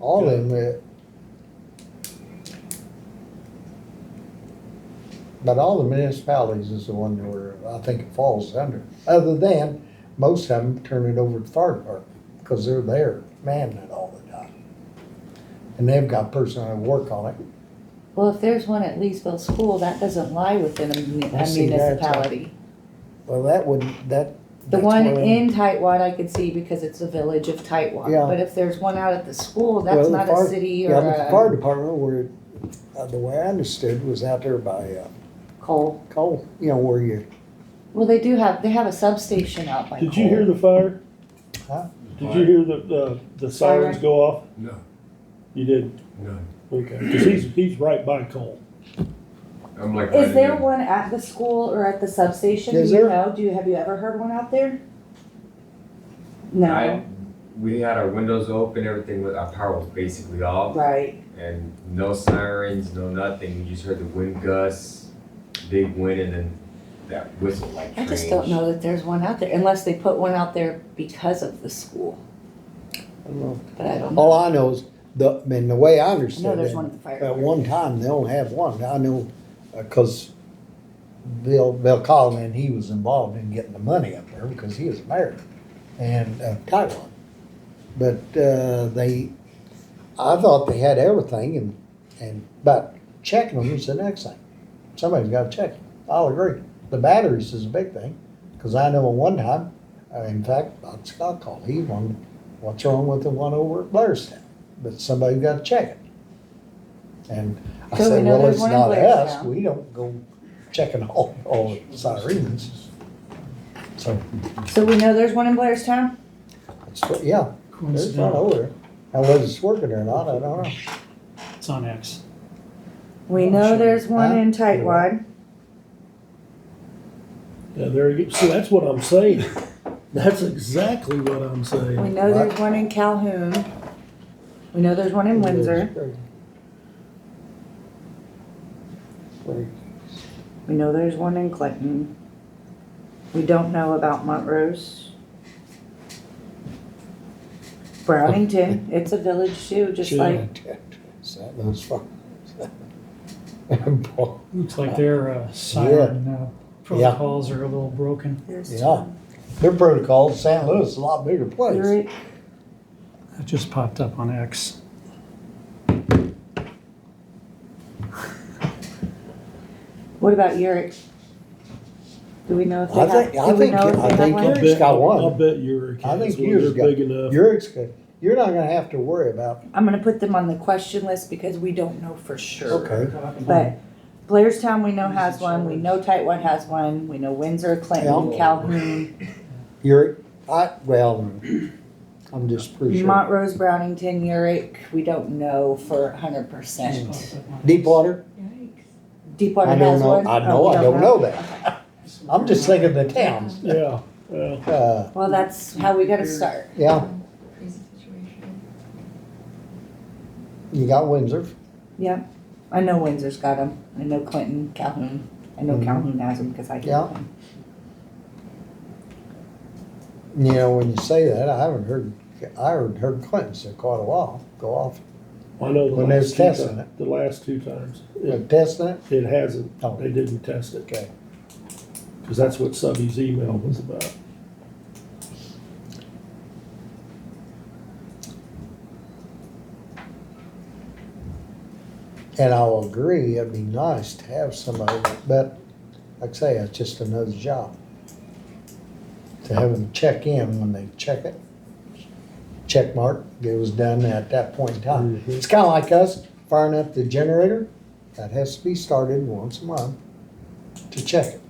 all of them. uh, But all the municipalities is the one where I think it falls under, other than most of them turn it over to fire department, because they're there manning it all the time. And they've got person that work on it. Well, if there's one at Leesville School, that doesn't lie within a muni- I a see that, uh, municipality. Well, that wouldn't, that. The that's one where- in Tightwad I could see because it's a village of Tightwad, Yeah. but if there's one out at the school, Well, that's the not fire- a city or Yeah, but the fire a department where, uh, the way I understood was out there by, uh, coal. coal, you know, where you, Well, they do have, they have a substation out by coal. Did you hear the fire? Huh? Did you hear the, the, the sirens go off? No, You did? no. Okay, cause he's, he's right by Cole. I'm like. Is there one at the school or at the substation? Is Do you there? know? Do you, have you ever heard one out there? No, I- We had our windows open, everything, was- our power was basically off right. and no sirens, no nothing. You just heard the wind gusts, big wind and then that whistle like I strange. just don't know that there's one out there unless they put one out there because of the school, I don't know. but I don't know. All I know is the, I mean, the way I I know understood there's it, one at the fire. at one time, they only had one. I know, uh 'cause cause Bill, Bill Collin, and he was involved in getting the money up there because he was married and, uh, Taiwan. But, uh, they, I thought they had everything and, and, but checking them is the next thing. Somebody's gotta check them. I'll agree. The batteries is a big thing, cause I know at one time, uh, in fact, Bob Scott called, he wanted, what's wrong with the one over at Blairstown? But somebody gotta check it. And I So we said, know well, there's it's one in not us, Blairstown. we don't go checking all, all the sirens. So, So we know there's one in Blairstown? it's, yeah, there's one over there. Now whether it's working or not, I don't know. It's on X. Oh, We know there's one in Tightwad. Yeah, there you go. See, that's what I'm saying. That's exactly what I'm We saying. know there's one in Calhoun. We know there's one in Windsor. We know there's one in Clinton. We don't know about Montrose. Brownington, it's a village too, just Sure. like, So those fuck- Boy, Looks like their uh, siren uh, protocols are a little broken. there's Yeah, two. their protocol, San Luis is a lot bigger place. There- That just popped up on X. What about Urich? Do we know if I they have? think- I do we think- know if I they have think one? I'll Yours bet, got one. I'll bet your I think kids, when yours they're got- big enough, You're, ex- you're not gonna have to worry about, I'm gonna put them on the question list because we don't know for sure. okay, But Blairstown, we know has one, we know Tightwad has one, we know Windsor, Clinton, Yeah. Calhoun, you're, I, well, I'm just pretty sure. Montrose, Brownington, Urich, we don't know for hundred percent. Deepwater, Deepwater I don't has know, one? I Oh, know, we I don't know that. I'm just thinking the towns, yeah, well, uh, Well, that's how we gotta start. yeah, crazy situation. you got Windsor, Yeah, I know Windsor's got them, I know Clinton, Calhoun, I know Mhm. Calhoun has them because I get Yeah. them. you know, when you say that, I haven't heard, I haven't heard Clinton in quite a while, go off, I know the When they was last two testing times, the last two times, it, They're testing it, it hasn't, Oh. they didn't test it, okay, cause that's what Subby's email was about. and I'll agree, it'd be nice to have somebody, but, like I say, it's just another job. To have them check in when they check it, check mark, it was done at that point in time. Mhm. It's kinda like us firing up the generator, that has to be started once a month to check it.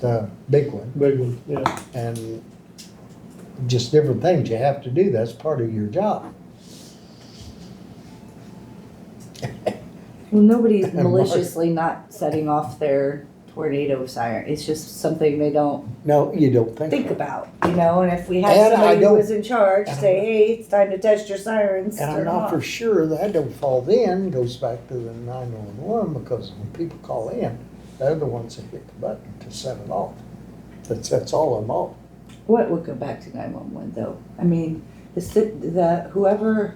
The big one. Big one, yeah. and just different things you have to do. That's part of your job. Well, nobody's And Mark- maliciously not setting off their tornado siren, it's just something they don't No, you don't think. think about, you know, and if we And I had somebody who don't- was in charge, and I'm say, hey, it's time to test your sirens, And I'm turn not off. for sure that don't fall then goes back to the nine one one because when people call in, they're the ones that hit the button to set it off. That's that's all I'm all. What would go back to nine one one though? I mean, the, ci- the, whoever